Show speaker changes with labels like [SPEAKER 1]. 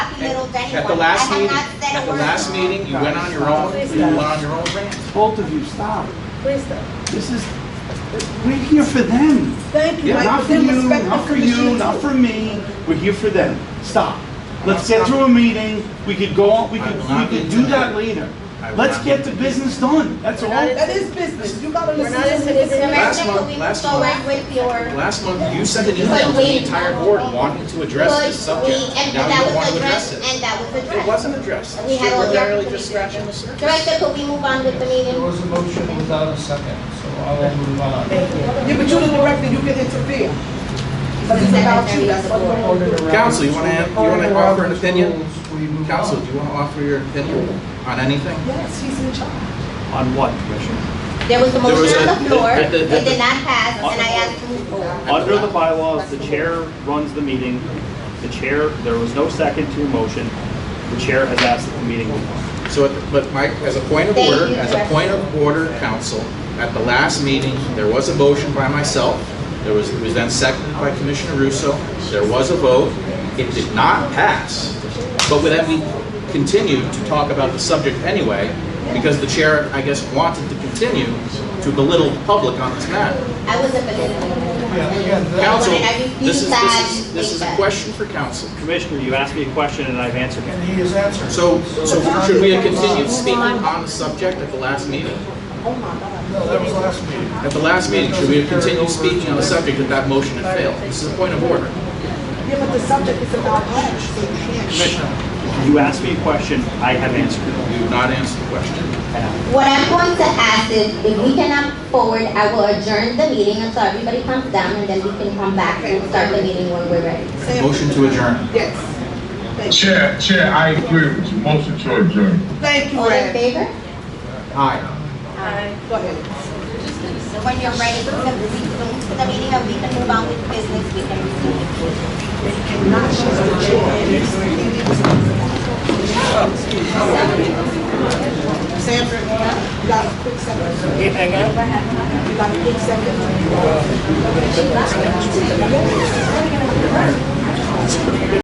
[SPEAKER 1] with anyone.
[SPEAKER 2] At the last
[SPEAKER 1] I have
[SPEAKER 2] meeting,
[SPEAKER 1] not said a
[SPEAKER 2] at the
[SPEAKER 1] word.
[SPEAKER 2] last meeting, you went on your own, you went on your own rant.
[SPEAKER 3] Both of you, stop.
[SPEAKER 4] Please stop.
[SPEAKER 3] This is, we're here for them.
[SPEAKER 4] Thank you,
[SPEAKER 3] Yeah,
[SPEAKER 4] Mike,
[SPEAKER 3] not
[SPEAKER 4] but
[SPEAKER 3] for
[SPEAKER 4] then
[SPEAKER 3] you,
[SPEAKER 4] respect the
[SPEAKER 3] not for
[SPEAKER 4] commissioners.
[SPEAKER 3] you, not for me, we're here for them. Stop. Let's get through a meeting, we could go, on. we could, we could do that later. Let's get the business done, that's all.
[SPEAKER 4] That is business, you gotta
[SPEAKER 5] We're
[SPEAKER 4] listen
[SPEAKER 5] not
[SPEAKER 4] to
[SPEAKER 5] intimidating.
[SPEAKER 4] the commission.
[SPEAKER 1] Commissioner, could we
[SPEAKER 2] Last month- last
[SPEAKER 1] go
[SPEAKER 2] month-
[SPEAKER 1] back with your,
[SPEAKER 2] Last month, you sent an email to the entire board wanting to address
[SPEAKER 1] could
[SPEAKER 2] this subject,
[SPEAKER 1] we- and
[SPEAKER 2] and now you
[SPEAKER 1] that
[SPEAKER 2] don't want
[SPEAKER 1] was
[SPEAKER 2] to
[SPEAKER 1] addressed,
[SPEAKER 2] address it.
[SPEAKER 1] and that was
[SPEAKER 2] It
[SPEAKER 1] addressed.
[SPEAKER 2] wasn't addressed.
[SPEAKER 1] We had
[SPEAKER 2] We're
[SPEAKER 1] all the
[SPEAKER 2] barely just
[SPEAKER 1] opportunity.
[SPEAKER 2] scratching the surface.
[SPEAKER 1] Director, could we move on with the meeting?
[SPEAKER 6] There was a motion without a second, so I will move on.
[SPEAKER 4] Yeah, but you're the director, you can interfere. But it's about you, that's what we're gonna do.
[SPEAKER 2] Counsel, you wanna have- you wanna
[SPEAKER 6] Order
[SPEAKER 2] offer an
[SPEAKER 6] Robert's
[SPEAKER 2] opinion?
[SPEAKER 6] rules, we move
[SPEAKER 2] Council,
[SPEAKER 6] on.
[SPEAKER 2] do you want to offer your opinion on anything?
[SPEAKER 4] Yes, he's in charge.
[SPEAKER 3] On what, Commissioner?
[SPEAKER 1] There was a
[SPEAKER 2] There was
[SPEAKER 1] motion on
[SPEAKER 2] a-
[SPEAKER 1] the floor,
[SPEAKER 2] the- the-
[SPEAKER 1] it did not pass, and I asked to move forward.
[SPEAKER 7] Under the bylaws, the chair runs the meeting. The chair, there was no second to a motion. The chair has asked that the meeting move on.
[SPEAKER 2] So, at- but Mike, as a point of
[SPEAKER 1] Thank
[SPEAKER 2] order,
[SPEAKER 1] you,
[SPEAKER 2] as a
[SPEAKER 1] Director.
[SPEAKER 2] point of order, council, at the last meeting, there was a motion by myself. There was, it was then seconded by Commissioner Russo. There was a vote. It did not pass. But then we continued to talk about the subject anyway, because the chair, I guess, wanted to continue to belittle the public on this matter.
[SPEAKER 1] I wasn't believing
[SPEAKER 6] Yeah,
[SPEAKER 1] it.
[SPEAKER 6] again, that-
[SPEAKER 2] Council,
[SPEAKER 1] Have you
[SPEAKER 2] this is, this is,
[SPEAKER 1] decided-
[SPEAKER 2] this is a question for council.
[SPEAKER 7] Commissioner, you asked me a question and I've answered it.
[SPEAKER 6] And he is answered.
[SPEAKER 2] So, so should we have continued speaking on the subject at the last meeting?
[SPEAKER 6] No, that was last meeting.
[SPEAKER 2] At the last meeting, should we have continued speaking on the subject if that motion had failed? This is a point of order.
[SPEAKER 4] Yeah, but the subject is about us, so you can't.
[SPEAKER 7] You asked me a question, I have answered it.
[SPEAKER 2] You have not answered the question.
[SPEAKER 1] What I'm going to ask is, if we cannot forward, I will adjourn the meeting until everybody comes down, and then we can come back and start the meeting when we're ready.
[SPEAKER 2] Motion to adjourn.
[SPEAKER 4] Yes.
[SPEAKER 8] Chair, Chair, I agree with you. Motion to adjourn.
[SPEAKER 4] Thank you,
[SPEAKER 1] All in
[SPEAKER 4] Ed.
[SPEAKER 1] favor?
[SPEAKER 2] Aye.
[SPEAKER 4] Go ahead.
[SPEAKER 1] When you're ready to resume the meeting, and we can move on with business, we can resume.
[SPEAKER 4] Sandra, you got a quick second? You got a quick second?